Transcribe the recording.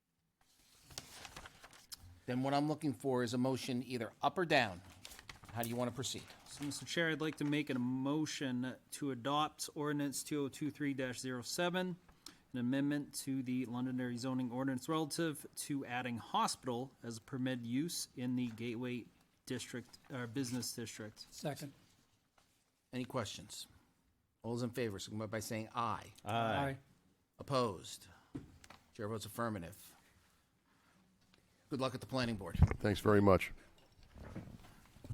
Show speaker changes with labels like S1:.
S1: then what I'm looking for is a motion either up or down. How do you want to proceed?
S2: So, Mr. Chair, I'd like to make a motion to adopt ordinance 2023-07, an amendment to the Londonderry zoning ordinance relative to adding hospital as a permitted use in the Gateway District, or Business District.
S3: Second.
S1: Any questions? All those in favor, signify by saying aye.
S3: Aye.
S1: Opposed? Chair votes affirmative. Good luck at the planning board.
S4: Thanks very much.